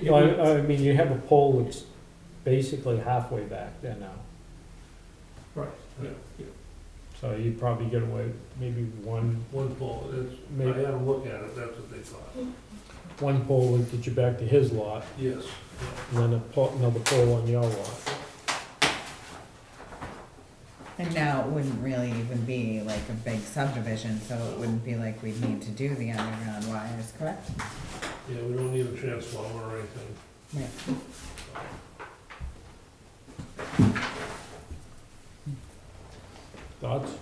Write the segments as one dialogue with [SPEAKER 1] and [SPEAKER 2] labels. [SPEAKER 1] No, I, I mean, you have a pole that's basically halfway back there now,
[SPEAKER 2] Right, yeah, yeah,
[SPEAKER 1] so you'd probably get away with maybe one,
[SPEAKER 2] one pole, it's, I
[SPEAKER 1] maybe,
[SPEAKER 2] had a look at it, that's what they thought,
[SPEAKER 1] one pole would get you back to his lot,
[SPEAKER 2] yes.
[SPEAKER 1] and then a pole, another pole on your lot.
[SPEAKER 3] And now it wouldn't really even be like a big subdivision, so it wouldn't be like we'd need to do the underground wires, correct?
[SPEAKER 2] Yeah, we don't need a transformer or anything.
[SPEAKER 3] Right.
[SPEAKER 1] Thoughts?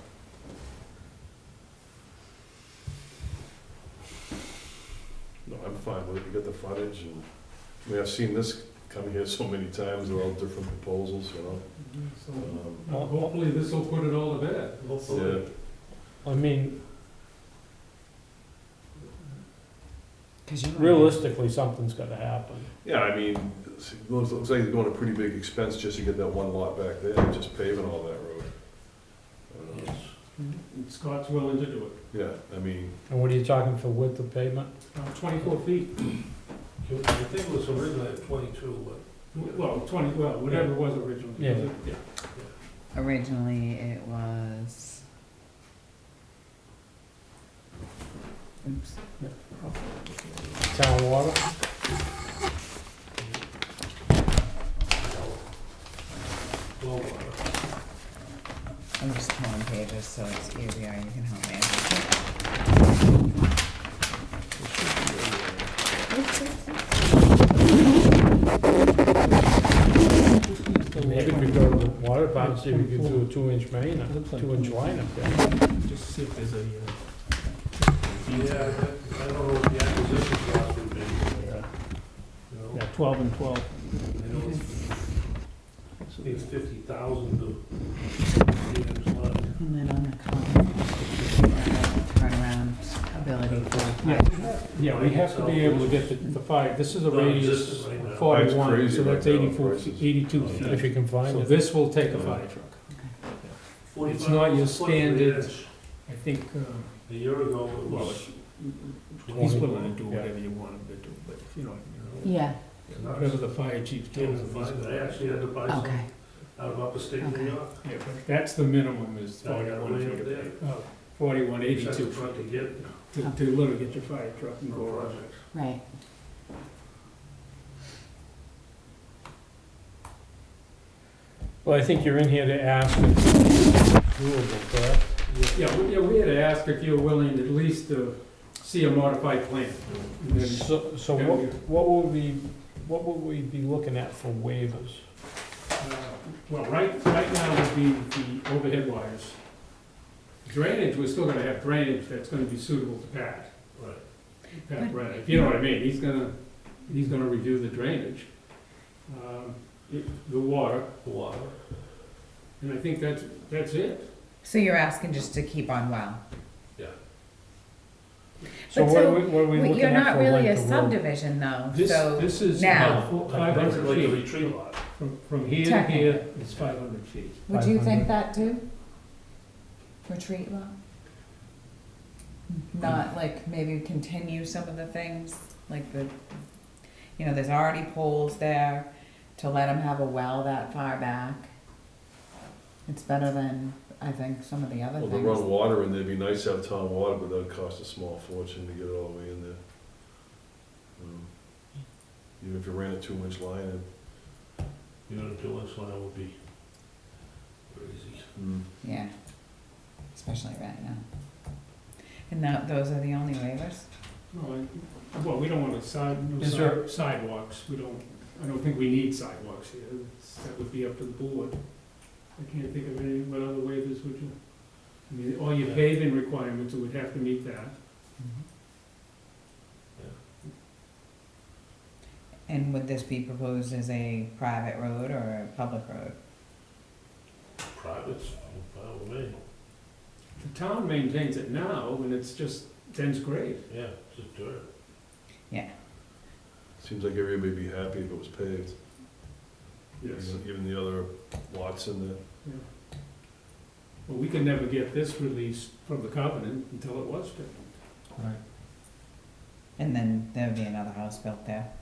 [SPEAKER 4] No, I'm fine with it, you got the frontage, and, I mean, I've seen this come here so many times, they're all different proposals, you know? Um,
[SPEAKER 1] Well,
[SPEAKER 2] Hopefully this'll put it all to bed.
[SPEAKER 4] Yeah,
[SPEAKER 1] I mean,
[SPEAKER 3] Cause you.
[SPEAKER 1] realistically, something's gotta happen.
[SPEAKER 4] yeah, I mean, it's- it looks, looks like they're going to pretty big expense just to get that one lot back there, just paving all that road. I don't know.
[SPEAKER 2] Scott's willing to do
[SPEAKER 4] Yeah, I mean,
[SPEAKER 1] And what are you talking for width of pavement?
[SPEAKER 2] it. Uh, Twenty-four feet. I think it was originally at twenty-two, but. Well, twenty, well,
[SPEAKER 1] whatever
[SPEAKER 2] was originally.
[SPEAKER 1] Yeah.
[SPEAKER 2] Yeah.
[SPEAKER 3] Originally, it was. Oops.
[SPEAKER 1] Town water?
[SPEAKER 2] Low water.
[SPEAKER 3] I'm just pulling pages, so it's easier, you can help me. out.
[SPEAKER 1] Maybe we go to the water department, see if we could do a two-inch main, a two-inch line up there.
[SPEAKER 5] Just see if there's uh, a,
[SPEAKER 2] Yeah, I I don't know what the acquisition cost would be. You know,
[SPEAKER 5] yeah, twelve and twelve.
[SPEAKER 2] I know it's- it's fifty thousand to. it's not-
[SPEAKER 3] And then on the column, turnaround ability for.
[SPEAKER 1] Yeah, we have to be able to get the, the five, this is a radius
[SPEAKER 2] Non-existent right now.
[SPEAKER 1] forty-one,
[SPEAKER 4] That's
[SPEAKER 1] so
[SPEAKER 4] crazy
[SPEAKER 1] that's
[SPEAKER 4] right now,
[SPEAKER 1] eighty-four,
[SPEAKER 4] prices.
[SPEAKER 1] eighty-two feet. If you can find it. So this will take a five truck. It's not your
[SPEAKER 2] 45 foot ranch.
[SPEAKER 1] standard- I think,
[SPEAKER 5] uh,
[SPEAKER 1] um,
[SPEAKER 2] A year ago, it
[SPEAKER 5] Well,
[SPEAKER 2] was.
[SPEAKER 5] he's
[SPEAKER 1] Twenty.
[SPEAKER 5] willing to do
[SPEAKER 1] Yeah.
[SPEAKER 5] whatever you want him to do, but, you know,
[SPEAKER 3] Yeah,
[SPEAKER 5] whatever the fire chief
[SPEAKER 2] It
[SPEAKER 5] tells
[SPEAKER 2] was
[SPEAKER 5] him. he's
[SPEAKER 2] fine, but I
[SPEAKER 5] gonna-
[SPEAKER 2] actually had to buy some
[SPEAKER 3] okay.
[SPEAKER 2] out of upstate
[SPEAKER 3] Okay.
[SPEAKER 2] New York.
[SPEAKER 5] Yeah, but that's the minimum is
[SPEAKER 2] I got
[SPEAKER 5] forty-one
[SPEAKER 2] way
[SPEAKER 5] feet
[SPEAKER 2] up
[SPEAKER 5] of
[SPEAKER 2] there.
[SPEAKER 5] pay- oh, forty-one
[SPEAKER 2] That's
[SPEAKER 5] eighty-two
[SPEAKER 2] what I had to get
[SPEAKER 5] to, to literally get your fire truck and go
[SPEAKER 2] for
[SPEAKER 5] around.
[SPEAKER 2] projects.
[SPEAKER 3] Right.
[SPEAKER 1] Well, I think you're in here to ask if it's doable, correct?
[SPEAKER 5] Yeah, we, yeah, we had to ask if you were willing at least to see a modified plan. And then-
[SPEAKER 1] So, so
[SPEAKER 5] Yeah,
[SPEAKER 1] what,
[SPEAKER 5] we-
[SPEAKER 1] what would we, what would we be looking at for waivers?
[SPEAKER 5] Uh, Well, right, right now would be the overhead wires. Drainage, we're still gonna have drainage that's gonna be suitable to Pat,
[SPEAKER 2] Right.
[SPEAKER 5] Pat Brennan, if you know what I mean, he's gonna, he's gonna review the drainage. um, it- The water,
[SPEAKER 2] The water.
[SPEAKER 5] and I think that's, that's it.
[SPEAKER 3] So you're asking just to keep on well?
[SPEAKER 1] So
[SPEAKER 3] But
[SPEAKER 1] what are
[SPEAKER 3] so
[SPEAKER 1] we, what are we
[SPEAKER 3] Well,
[SPEAKER 1] looking
[SPEAKER 3] You're
[SPEAKER 1] at
[SPEAKER 3] not
[SPEAKER 1] for
[SPEAKER 3] really
[SPEAKER 1] length
[SPEAKER 3] a
[SPEAKER 1] of road?
[SPEAKER 3] subdivision though,
[SPEAKER 5] This,
[SPEAKER 3] so,
[SPEAKER 5] this is
[SPEAKER 3] now-
[SPEAKER 5] five
[SPEAKER 2] Like the
[SPEAKER 5] hundred feet,
[SPEAKER 2] retreat lot.
[SPEAKER 5] from, from here to here is five hundred feet.
[SPEAKER 3] would you
[SPEAKER 1] 500.
[SPEAKER 3] think that too? Retreat lot?
[SPEAKER 1] Mm-hmm.
[SPEAKER 3] Not like maybe continue some of the things, like the, you know, there's already poles there, to let them have a well that far back. It's better than, I think, some of the other
[SPEAKER 4] well, they run
[SPEAKER 3] things.
[SPEAKER 4] water, and it'd be nice to have town water, but that'd cost a small fortune to get it all the way in there. Um, Even if you ran a two-inch line, it'd
[SPEAKER 2] You know, the one line would be crazy.
[SPEAKER 3] Hmm.
[SPEAKER 4] Mm.
[SPEAKER 3] Yeah, especially right now. And that, those are the only waivers?
[SPEAKER 5] No, I- Well, we don't want to side, no
[SPEAKER 1] Is there-
[SPEAKER 5] side- sidewalks, we don't, I don't think we need sidewalks here, It's- that would be up to the board. I can't think of any, what other waivers would you, I mean, all your paving requirements would have to meet that.
[SPEAKER 3] And would this be proposed as a private road or a public road?
[SPEAKER 2] Privates, fine with me.
[SPEAKER 5] The town maintains it now, and it's just dense grade.
[SPEAKER 2] Yeah, just dirt.
[SPEAKER 4] Seems like everybody would be happy if it was paved,
[SPEAKER 5] Yes.
[SPEAKER 4] even- even the other lots in there.
[SPEAKER 5] But we could never get this released from the covenant until it was paved.
[SPEAKER 3] And then there'd be another house built there.